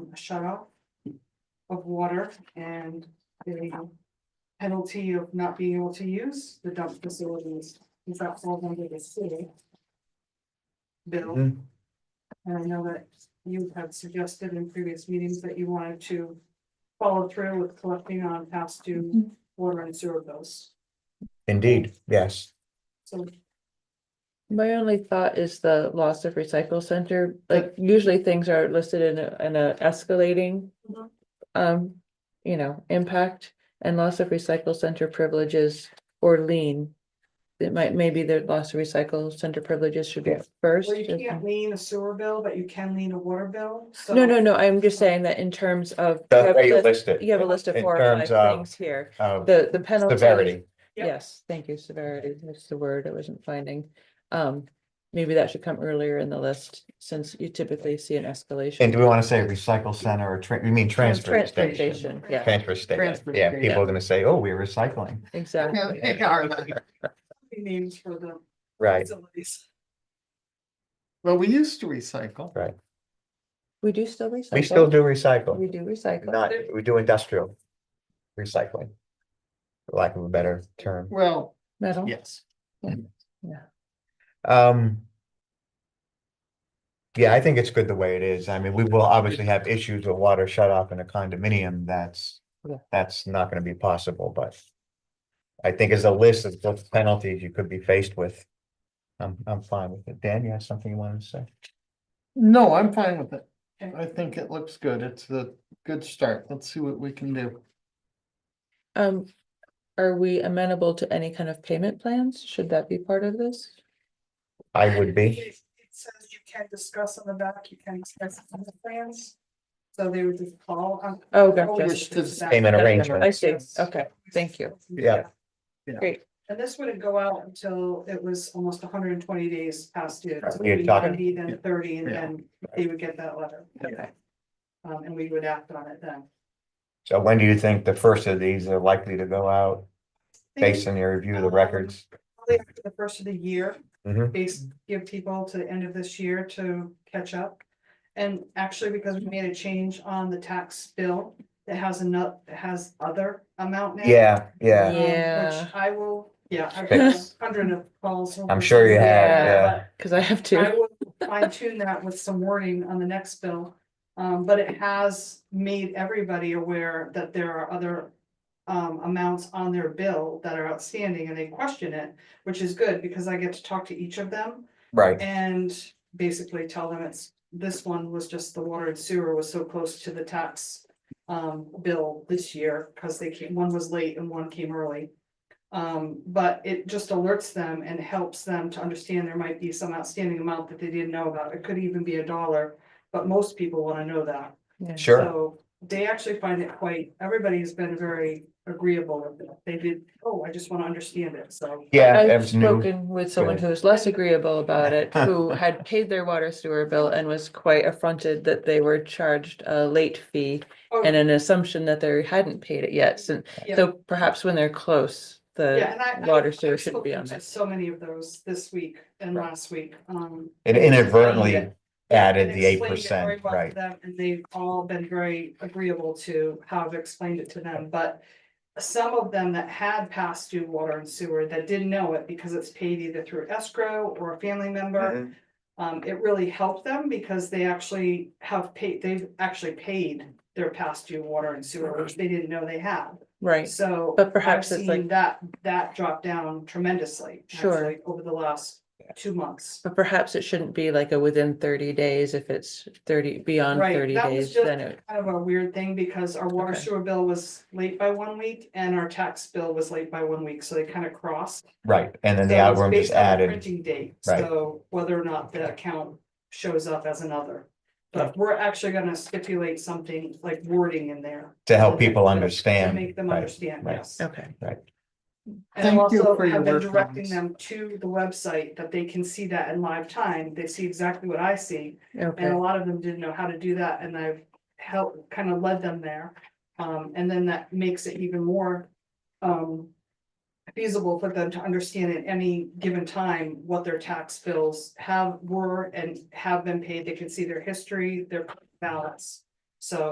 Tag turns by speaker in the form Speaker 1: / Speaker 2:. Speaker 1: um, a shut off of water and the penalty of not being able to use the dump facilities, is that falls under the city? Bill,
Speaker 2: Mhm.
Speaker 1: and I know that you had suggested in previous meetings that you wanted to follow through with collecting on past
Speaker 3: Mm-hmm.
Speaker 1: due water and sewer bills,
Speaker 2: Indeed, yes.
Speaker 1: so
Speaker 3: My only thought is the loss of recycle center, like usually things are listed in a, in a escalating.
Speaker 1: Mhm.
Speaker 3: Um, you know, impact and loss of recycle center privileges or lien. It might, maybe the loss of recycle center privileges should be
Speaker 2: Yeah.
Speaker 3: first.
Speaker 1: Well, you
Speaker 3: and-
Speaker 1: can't lean a sewer bill, but you can lean a water bill, so.
Speaker 3: No, no, no, I'm just saying that in terms of. you
Speaker 2: The
Speaker 3: have
Speaker 2: way you
Speaker 3: list-
Speaker 2: list it.
Speaker 3: You have a list of
Speaker 2: in
Speaker 3: four or five
Speaker 2: terms of-
Speaker 3: things here,
Speaker 2: uh,
Speaker 3: the, the penalty.
Speaker 2: Severity,
Speaker 1: Yep.
Speaker 3: Yes, thank you, severity, that's the word I wasn't finding. Um, maybe that should come earlier in the list, since you typically see an
Speaker 2: and
Speaker 3: escalation.
Speaker 2: do we want to say recycle center or, tra- you mean transfer station?
Speaker 3: Transfer station, yeah,
Speaker 2: Transfer station,
Speaker 4: Transfer
Speaker 2: yeah,
Speaker 4: station.
Speaker 2: people are gonna say, oh, we're recycling,
Speaker 3: exactly.
Speaker 4: No, they are there.
Speaker 1: Names for the
Speaker 2: right,
Speaker 1: facilities.
Speaker 4: Well, we used to recycle.
Speaker 2: right,
Speaker 3: We do still recycle.
Speaker 2: we still do
Speaker 3: We
Speaker 2: recycle,
Speaker 3: do recycle.
Speaker 2: not, we do industrial recycling. for Lack of a better term,
Speaker 4: Well,
Speaker 3: Metal,
Speaker 4: yes.
Speaker 2: um. Yeah, I think it's good the way it is, I mean, we will obviously have issues with water shut off in a condominium, that's,
Speaker 3: Yeah.
Speaker 2: that's not gonna be possible, but. I think as a list of the penalties you could be faced with, I'm, I'm fine with it, Dan, you have something you wanted to say?
Speaker 4: No, I'm fine with it.
Speaker 1: Okay.
Speaker 4: I think it looks good. It's a good start. Let's see what we can do.
Speaker 3: um, are we amenable to any kind of payment plans? Should that be part of this?
Speaker 2: I would be.
Speaker 1: It says you can discuss on the back, you can express on the plans, so they would just call on.
Speaker 3: Oh,
Speaker 4: yes.
Speaker 3: gotcha,
Speaker 2: Payment arrangement.
Speaker 3: I see, okay, thank you,
Speaker 2: Yeah.
Speaker 4: Yeah.
Speaker 3: Great.
Speaker 1: And this wouldn't go out until it was almost hundred and twenty days past due.
Speaker 2: Right,
Speaker 1: so
Speaker 2: you're
Speaker 1: maybe
Speaker 2: talking-
Speaker 1: 90, Then thirty, and
Speaker 4: Yeah.
Speaker 1: then they would get that letter,
Speaker 3: okay.
Speaker 1: um, and we would act on it then.
Speaker 2: So when do you think the first of these are likely to go out based on your review of the records?
Speaker 1: Probably after the first of the year.
Speaker 2: Mhm.
Speaker 1: Base, give people to the end of this year to catch up. And actually, because we made a change on the tax bill, that has enough, that has other amount now.
Speaker 2: Yeah,
Speaker 1: um,
Speaker 2: yeah,
Speaker 3: Yeah.
Speaker 1: Which I will, yeah, I've got
Speaker 3: Fix.
Speaker 1: a hundred of calls.
Speaker 2: I'm sure you have,
Speaker 3: Yeah.
Speaker 2: yeah.
Speaker 3: Cause I have
Speaker 1: but I
Speaker 3: to,
Speaker 1: will fine tune that with some wording on the next bill. Um, but it has made everybody aware that there are other um, amounts on their bill that are outstanding and they question it, which is good because I get to talk to each of them
Speaker 2: Right,
Speaker 1: and basically tell them it's, this one was just the water and sewer was so close to the tax um, bill this year, because they came, one was late and one came early. Um, but it just alerts them and helps them to understand there might be some outstanding amount that they didn't know about. It could even be a dollar, but most people want to know that.
Speaker 3: yeah.
Speaker 2: sure.
Speaker 1: So they actually find it quite, everybody's been very agreeable with it. They did, oh, I just want to understand it, so.
Speaker 2: Yeah, that
Speaker 3: I've
Speaker 2: was new.
Speaker 3: spoken with someone
Speaker 2: Right.
Speaker 3: who was less agreeable about it, who had paid their water sewer bill and was quite affronted that they were charged a late fee
Speaker 1: Oh,
Speaker 3: and an assumption that they hadn't paid it yet, so,
Speaker 1: Yeah.
Speaker 3: so perhaps when they're close,
Speaker 1: Yeah,
Speaker 3: the
Speaker 1: and I- I-
Speaker 3: water sewer
Speaker 1: I've
Speaker 3: should be
Speaker 1: spoken
Speaker 3: on
Speaker 1: to
Speaker 3: that.
Speaker 1: So many of those this week and
Speaker 3: Right.
Speaker 1: last week, um.
Speaker 2: It inadvertently
Speaker 1: and
Speaker 2: added the eight
Speaker 1: explained it very
Speaker 2: percent,
Speaker 1: well to
Speaker 2: right,
Speaker 1: them, And they've all been very agreeable to how I've explained it to them, but some of them that had passed due water and sewer that didn't know it because it's paid either through escrow or a family member.
Speaker 2: Mm-hmm.
Speaker 1: Um, it really helped them because they actually have paid, they've actually paid their past due water and sewer, which they didn't know they had.
Speaker 3: Right,
Speaker 1: So.
Speaker 3: But perhaps
Speaker 1: I've
Speaker 3: it's like-
Speaker 1: seen That, that dropped down tremendously.
Speaker 3: Sure.
Speaker 1: actually, Over the last two months.
Speaker 3: but perhaps it shouldn't be like a within thirty days, if it's thirty, beyond
Speaker 1: Right,
Speaker 3: thirty
Speaker 1: that was
Speaker 3: days,
Speaker 1: just-
Speaker 3: then it,
Speaker 1: Kind of a weird thing because our water
Speaker 3: Okay.
Speaker 1: sewer bill was late by one week and our tax bill was late by one week, so they kind of crossed.
Speaker 2: right, and then the
Speaker 1: So it's
Speaker 2: algorithm is
Speaker 1: based on the
Speaker 2: added,
Speaker 1: Printing date,
Speaker 2: Right.
Speaker 1: so whether or not the account shows up as another. But we're actually gonna stipulate something like wording in there.
Speaker 2: to help people
Speaker 1: To
Speaker 2: understand.
Speaker 1: make them
Speaker 2: right,
Speaker 1: understand,
Speaker 2: right.
Speaker 1: yes.
Speaker 3: okay.
Speaker 1: And I've
Speaker 4: Thank you
Speaker 1: also
Speaker 4: for your
Speaker 1: have been
Speaker 4: work on
Speaker 1: directing
Speaker 4: this.
Speaker 1: them to the website that they can see that in live time. They see exactly what I see. And
Speaker 3: Okay,
Speaker 1: a lot of them didn't know how to do that and I've helped, kind of led them there. Um, and then that makes it even more, um, feasible for them to understand at any given time what their tax bills have, were, and have been paid. They can see their history, their balance. So